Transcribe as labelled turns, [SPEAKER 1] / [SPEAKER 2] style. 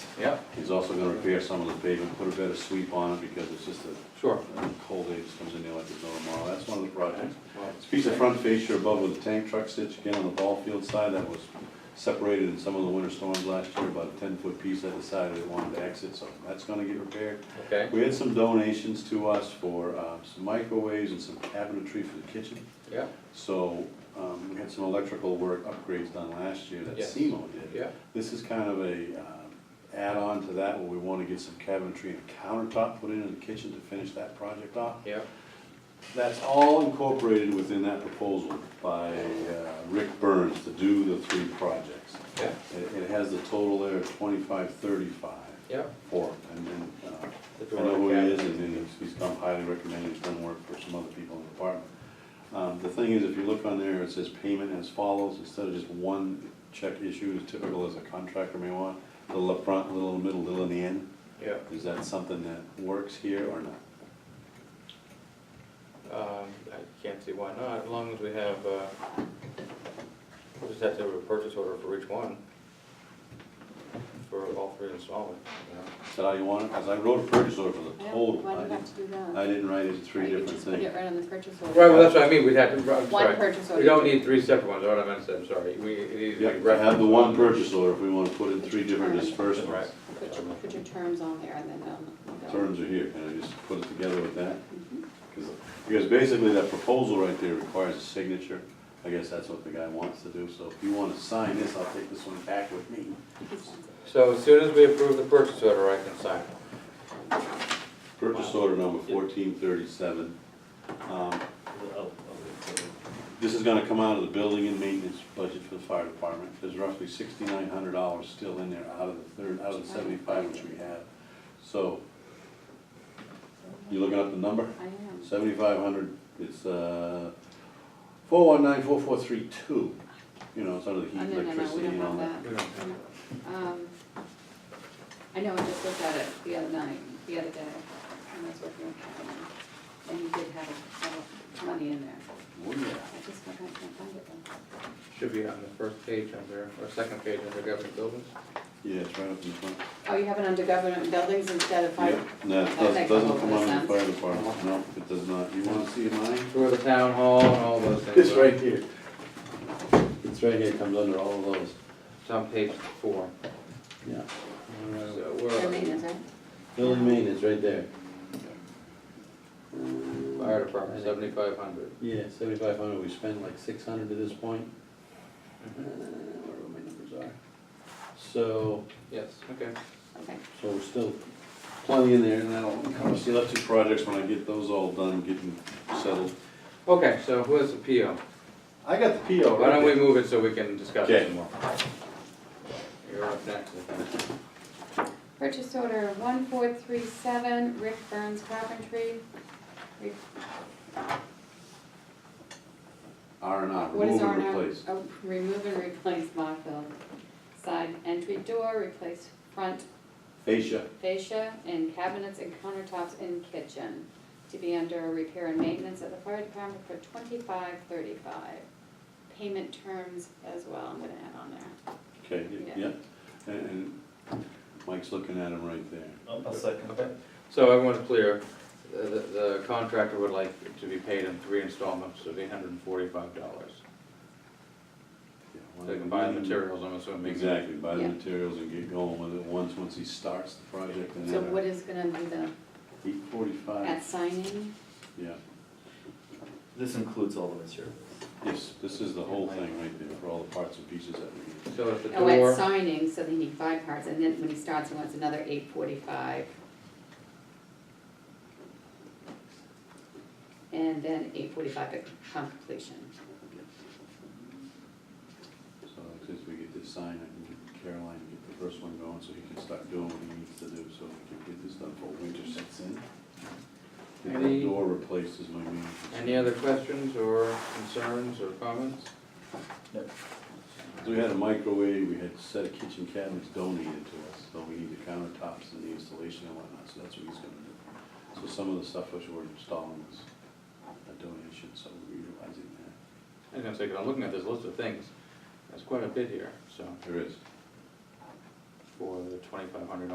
[SPEAKER 1] Yeah,
[SPEAKER 2] He's also gonna repair some of the pavement, put a better sweep on it because it's just a
[SPEAKER 1] sure.
[SPEAKER 2] a cold day just comes in there like there's no tomorrow. That's one of the projects.
[SPEAKER 1] Well,
[SPEAKER 2] This piece of front fascia above with the tank truck stitch again on the ball field side that was separated in some of the winter storms last year, about a ten-foot piece that decided it wanted to exit, so that's gonna get repaired.
[SPEAKER 1] Okay,
[SPEAKER 2] We had some donations to us for uh, some microwaves and some cabinetry for the kitchen.
[SPEAKER 1] yeah,
[SPEAKER 2] So um, we had some electrical work upgrades done last year that
[SPEAKER 1] Yes.
[SPEAKER 2] SEMO did.
[SPEAKER 1] yeah,
[SPEAKER 2] This is kind of a um, add-on to that, where we want to get some cabinetry and countertop put in in the kitchen to finish that project off.
[SPEAKER 1] yeah,
[SPEAKER 2] That's all incorporated within that proposal by uh, Rick Burns to do the three projects.
[SPEAKER 1] yeah,
[SPEAKER 2] It it has the total there of twenty-five, thirty-five
[SPEAKER 1] yeah.
[SPEAKER 2] for, and then, uh,
[SPEAKER 1] The
[SPEAKER 2] I know who he
[SPEAKER 1] door
[SPEAKER 2] is,
[SPEAKER 1] cabinet.
[SPEAKER 2] and then he's, he's come highly recommended, he's done work for some other people in the department. Um, the thing is, if you look on there, it says payment as follows, instead of just one check issue, as typical as a contractor may want, little up front, little in the middle, little in the end,
[SPEAKER 1] Yeah,
[SPEAKER 2] is that something that works here or not?
[SPEAKER 1] um, I can't see why not, as long as we have, uh, we just have to have a purchase order for each one, for all three installments, you know?
[SPEAKER 2] Is that how you want it? Because I wrote a purchase order for the
[SPEAKER 3] Yeah,
[SPEAKER 2] total,
[SPEAKER 3] Why do
[SPEAKER 2] I
[SPEAKER 3] you have to
[SPEAKER 2] didn't,
[SPEAKER 3] do that?
[SPEAKER 2] I didn't write it as
[SPEAKER 3] Or
[SPEAKER 2] three
[SPEAKER 3] You could
[SPEAKER 2] different
[SPEAKER 3] just put
[SPEAKER 2] things.
[SPEAKER 3] it right on the purchase order.
[SPEAKER 1] Right, well, that's what I mean, we'd have to, I'm
[SPEAKER 3] One
[SPEAKER 1] sorry.
[SPEAKER 3] purchase
[SPEAKER 1] We
[SPEAKER 3] order.
[SPEAKER 1] don't need three separate ones, what I meant to say, I'm sorry, we, it needs to
[SPEAKER 2] Yeah,
[SPEAKER 1] be
[SPEAKER 2] to have the
[SPEAKER 1] referenced
[SPEAKER 2] one
[SPEAKER 1] on-
[SPEAKER 2] purchase order if we want to put in three different disbursements.
[SPEAKER 1] Right,
[SPEAKER 3] Put your, put your terms on there and then, um, they'll-
[SPEAKER 2] Terms are here, can I just put it together with that?
[SPEAKER 3] Mhm.
[SPEAKER 2] Because because basically that proposal right there requires a signature. I guess that's what the guy wants to do, so if you want to sign this, I'll take this one back with me.
[SPEAKER 1] so as soon as we approve the purchase order, I can sign it.
[SPEAKER 2] Purchase order number fourteen thirty-seven. Um, This is gonna come out of the building and maintenance budget for the fire department. There's roughly sixty-nine hundred dollars still in there out of the third, out of the seventy-five which we have. So, you looking up the number?
[SPEAKER 3] I am.
[SPEAKER 2] Seventy-five hundred, it's, uh, four one nine, four four three two, you know, it's under the
[SPEAKER 3] Oh,
[SPEAKER 2] heat,
[SPEAKER 3] no, no, no, we
[SPEAKER 2] electricity
[SPEAKER 3] don't
[SPEAKER 2] and all that.
[SPEAKER 3] have that. No. Um, I know, I just looked at it the other night, the other day, when I was working with Kevin, and he did have, a- have a money in there.
[SPEAKER 2] Oh, yeah.
[SPEAKER 3] I just can't can't find it though.
[SPEAKER 1] Should be on the first page under, or second page under government buildings.
[SPEAKER 2] Yeah, it's right up in front.
[SPEAKER 3] Oh, you have it under government buildings instead of fire?
[SPEAKER 2] Yep, no, it
[SPEAKER 3] That
[SPEAKER 2] doesn't,
[SPEAKER 3] makes a
[SPEAKER 2] doesn't
[SPEAKER 3] whole
[SPEAKER 2] come
[SPEAKER 3] lot
[SPEAKER 2] on
[SPEAKER 3] of
[SPEAKER 2] the
[SPEAKER 3] sense.
[SPEAKER 2] fire department, no, it does not. You wanna see mine?
[SPEAKER 1] For the town hall and all those things.
[SPEAKER 2] It's right here. It's right here, comes under all of those.
[SPEAKER 1] It's on page four.
[SPEAKER 2] Yeah.
[SPEAKER 1] So
[SPEAKER 3] Their
[SPEAKER 1] we're,
[SPEAKER 3] maintenance, right?
[SPEAKER 2] Building maintenance, right there.
[SPEAKER 1] fire department, seventy-five hundred.
[SPEAKER 2] Yeah, seventy-five hundred, we spent like six hundred to this point. Uh, Where my numbers are. So,
[SPEAKER 1] Yes, okay.
[SPEAKER 3] Okay.
[SPEAKER 2] So we're still plenty in there, and that'll cover. See, left two projects, when I get those all done, getting settled.
[SPEAKER 1] Okay, so who has the PO?
[SPEAKER 2] I got the PO,
[SPEAKER 1] Why
[SPEAKER 2] right
[SPEAKER 1] don't we
[SPEAKER 2] there.
[SPEAKER 1] move it so we can discuss it
[SPEAKER 2] Okay.
[SPEAKER 1] some more? You're up next. I think.
[SPEAKER 3] Purchase order one four three seven, Rick Burns Carpentry. Re-
[SPEAKER 2] R and R,
[SPEAKER 3] What is
[SPEAKER 2] remove
[SPEAKER 3] our
[SPEAKER 2] and
[SPEAKER 3] now?
[SPEAKER 2] replace.
[SPEAKER 3] Oh, Remove and replace Mockville. Side entry door, replace front
[SPEAKER 2] Fascia,
[SPEAKER 3] fascia and cabinets and countertops in kitchen. To be under repair and maintenance at the fire department for twenty-five thirty-five. Payment terms as well, I'm gonna add on there.
[SPEAKER 2] okay,
[SPEAKER 3] Yeah.
[SPEAKER 2] yeah, and, and Mike's looking at him right there.
[SPEAKER 4] I'll second
[SPEAKER 1] Okay. So everyone's clear, the, the contractor would like to be paid in three installments of eight hundred and forty-five dollars.
[SPEAKER 2] Yeah,
[SPEAKER 1] They can buy the materials, I'm assuming.
[SPEAKER 2] Exactly, buy the
[SPEAKER 3] Yeah.
[SPEAKER 2] materials and get going with it once, once he starts the project, and
[SPEAKER 3] So what
[SPEAKER 2] then uh,
[SPEAKER 3] is gonna be the,
[SPEAKER 2] eight
[SPEAKER 3] at
[SPEAKER 2] forty-five,
[SPEAKER 3] signing?
[SPEAKER 2] yeah.
[SPEAKER 4] This includes all the materials.
[SPEAKER 2] Yes, this is the whole thing right there, for all the parts and pieces that we need.
[SPEAKER 1] So if the
[SPEAKER 3] Oh, at
[SPEAKER 1] door,
[SPEAKER 3] signing, so they need five parts, and then when he starts, he wants another eight forty-five. And then eight forty-five at completion.
[SPEAKER 2] So like, since we get this signed, I can get Caroline to get the first one going, so he can start doing what he needs to do, so we can get this done before winter sets in. Get
[SPEAKER 1] Any-
[SPEAKER 2] the door replaced is my main. concern.
[SPEAKER 1] any other questions or concerns or comments?
[SPEAKER 2] So We had a microwave, we had a set of kitchen cabinets donated to us, so we need the countertops and the installation and whatnot, so that's what he's gonna do. So some of the stuff which we're installing is a donation, so we're utilizing that.
[SPEAKER 1] I was gonna say, 'cause I'm looking at this list of things, there's quite a bit here, so,
[SPEAKER 2] There is.
[SPEAKER 1] for the twenty-five hundred